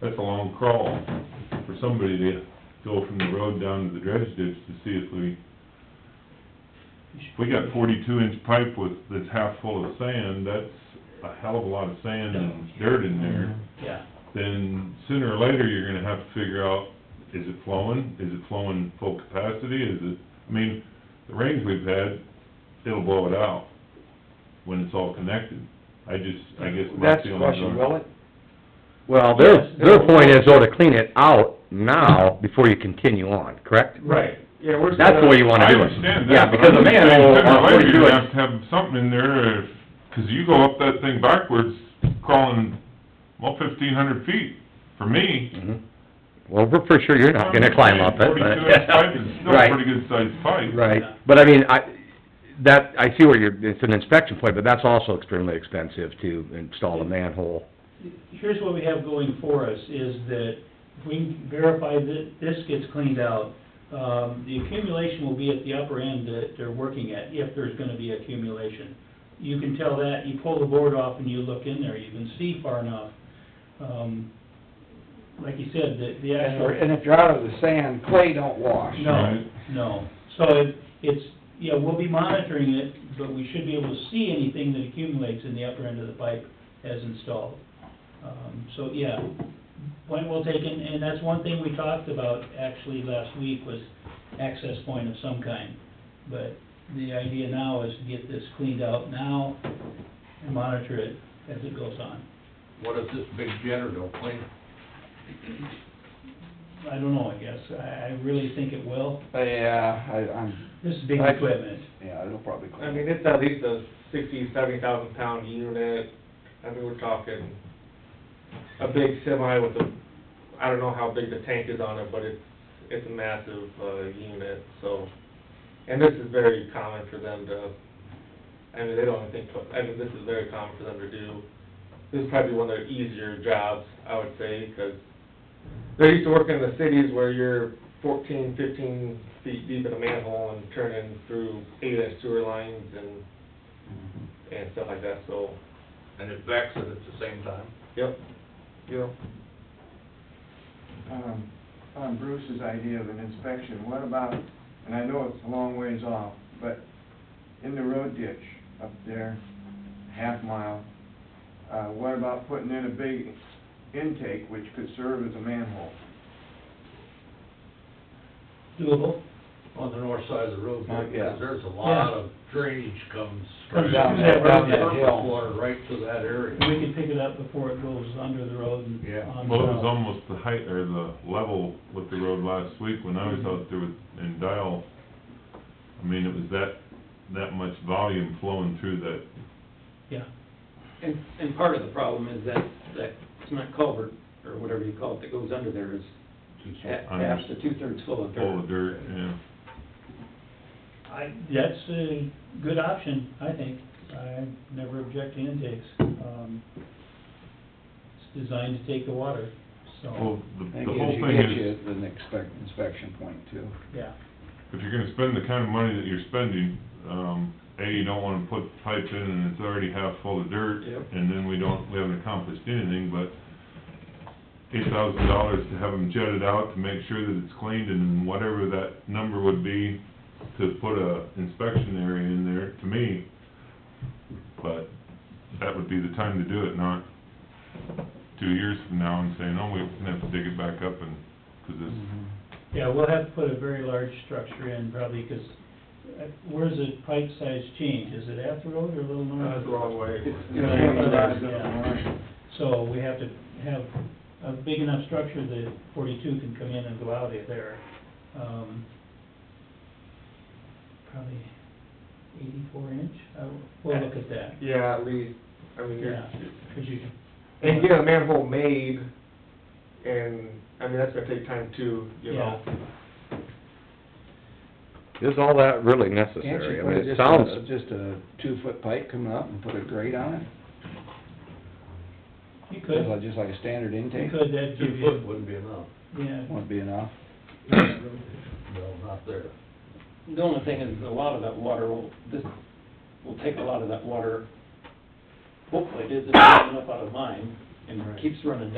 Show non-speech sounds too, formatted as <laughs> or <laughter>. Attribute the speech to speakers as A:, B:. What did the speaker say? A: that's a long crawl for somebody to go from the road down to the dredge ditch to see if we, if we got forty-two inch pipe with, that's half full of sand, that's a hell of a lot of sand and dirt in there.
B: Yeah,
A: Then sooner or later, you're gonna have to figure out, is it flowing? Is it flowing full capacity? Is it, I mean, the rains we've had, it'll blow it out when it's all connected. I just, I guess my
C: That's the
A: feeling
C: question,
A: on,
C: will it?
D: Well,
B: their-
D: their,
B: Yes, their
D: their
B: it'll- point
D: point
B: is,
D: is though to clean it out now before you continue on, correct?
B: right, yeah, we're.
D: That's the way you wanna
A: I
D: do it.
A: understand
D: Yeah,
A: that, but
D: because
A: I'm
D: a
A: just saying,
D: manhole
A: sooner
D: on
A: or later,
D: forty-two
A: you're gonna have to
D: inch,
A: have something in there, if- cause you go up that thing backwards, crawling, well, fifteen hundred feet, for me.
D: Mm-hmm. well, we're for sure you're not gonna climb up it,
A: Forty-two inch pipe
D: <laughs>
A: is still
D: but,
A: a pretty
D: right,
A: good sized pipe.
D: right. But I mean, I, that, I see where you're, it's an inspection point, but that's also extremely expensive to install a manhole.
B: Here's what we have going for us, is that if we verify that this gets cleaned out, um, the accumulation will be at the upper end that they're working at, if there's gonna be accumulation. You can tell that, you pull the board off and you look in there, you can see far enough. Um, like you said, the, the
C: And
B: actual.
C: we're- and if you're out of the sand, clay don't wash.
B: No,
A: Right.
B: no. So it, it's, yeah, we'll be monitoring it, but we should be able to see anything that accumulates in the upper end of the pipe as installed. Um, so, yeah, point well taken, and that's one thing we talked about actually last week was access point of some kind. But the idea now is to get this cleaned out now and monitor it as it goes on.
E: What if this big jetter don't clean it?
B: I don't know, I guess. I, I really think it will.
C: Uh, Yeah, I, I'm,
B: This is big
C: I-
B: equipment.
C: yeah, it'll probably clean.
F: I mean, it's at least a sixty, seventy thousand pound unit, I mean, we're talking a big semi with a, I don't know how big the tank is on it, but it's, it's a massive, uh, unit, so. And this is very common for them to, I mean, they don't even think, twi- I mean, this is very common for them to do. This is probably one of their easier jobs, I would say, because they're used to working in the cities where you're fourteen, fifteen feet deep in a manhole and turning through eight-inch sewer lines and, and stuff like that, so,
E: And it backs it at the same time?
F: yep, yep.
G: um, on Bruce's idea of an inspection, what about, and I know it's a long ways off, but in the road ditch up there, half mile, uh, what about putting in a big intake which could serve as a manhole?
B: Doable?
E: On the north side of the road,
C: Uh, yeah.
E: because there's a lot of drainage comes.
B: Comes
E: straight
B: down
E: from
B: that- down that
E: surface
C: hill.
E: Water right to that area.
B: We can pick it up before it goes under the road and.
E: Yeah.
B: on
A: Well, it was
B: the-
A: almost the height, or the level with the road last week when I was out there with, in Dial. I mean, it was that, that much volume flowing through that,
B: Yeah,
H: And, and part of the problem is that, that cement culvert, or whatever you call it, that goes under there is ha-
A: I'm-
H: half to two-thirds full of
A: full
H: dirt.
A: of dirt, yeah.
B: I, that's a good option, I think. I never object to intakes. Um, it's designed to take the water, so,
A: Well, the,
C: That
A: the
C: gives
A: whole
C: you,
A: thing
C: gives
A: is,
C: you the inspec inspection point too.
B: yeah.
A: if you're gonna spend the kind of money that you're spending, um, A, you don't wanna put pipe in and it's already half full of dirt.
H: Yep.
A: And then we don't, we haven't accomplished anything, but eight thousand dollars to have them jetted out to make sure that it's cleaned and whatever that number would be to put a inspection area in there, to me, but that would be the time to do it, not two years from now and saying, oh, we're gonna have to dig it back up and, 'cause it's
B: Yeah, we'll have to put a very large structure in probably, because where's the pipe size change? Is it at the road or a little north?
F: That's the wrong way. <laughs>
G: You know,
B: Yeah.
G: one of those that-
B: So we have to have a big enough structure that forty-two can come in and go out of there. Um, Probably eighty-four inch, I w- we'll look at that,
F: Yeah, at least, I mean, you're,
B: yeah, 'cause you can-
F: and get a manhole made, and, I mean, that's gonna take time too, you know?
D: Is all that really
C: Can't
D: necessary?
C: you
D: I
C: put
D: mean,
C: just uh,
D: it
C: a,
D: sounds,
C: just a two-foot pipe coming up and put a grate on it?
B: You
C: Just
B: could,
C: like, just like a standard
B: you
C: intake,
B: could, that'd give
E: Two
B: you,
E: foot wouldn't be enough.
B: yeah,
C: won't be enough.
E: No, not there.
H: The only thing is, a lot of that water will, this, will take a lot of that water, hopefully it isn't enough out of mine, and keeps running